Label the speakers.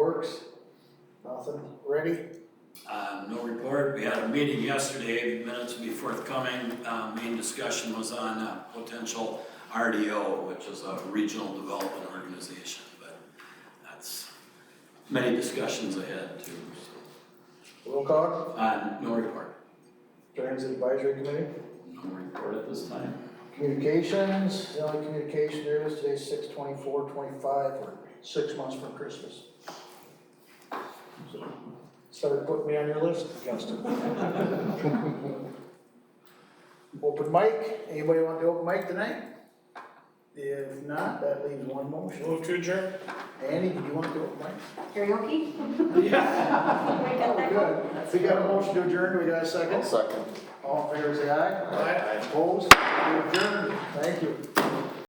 Speaker 1: Works? Nothing, ready?
Speaker 2: Um, no report, we had a meeting yesterday, minutes will be forthcoming, uh, main discussion was on, uh, potential RDO, which is a regional development organization, but that's many discussions ahead too, so.
Speaker 1: Roll call,
Speaker 2: Uh, no report,
Speaker 1: Transit Advisory Committee,
Speaker 2: no report at this time.
Speaker 1: communications, the only communication there is today's six twenty-four, twenty-five, or six months from Christmas. So, Started putting me on your list, Justin. Open mic, anybody want the open mic tonight? If not, that leaves one motion.
Speaker 3: Move to adjourn?
Speaker 1: Andy, do you want the open mic?
Speaker 4: Karaoke? Wake up that call.
Speaker 1: Oh, good. We got a motion to adjourn, do we got a second? Second. All in favor, say aye.
Speaker 3: Aye.
Speaker 1: Opposed? We adjourn, thank you.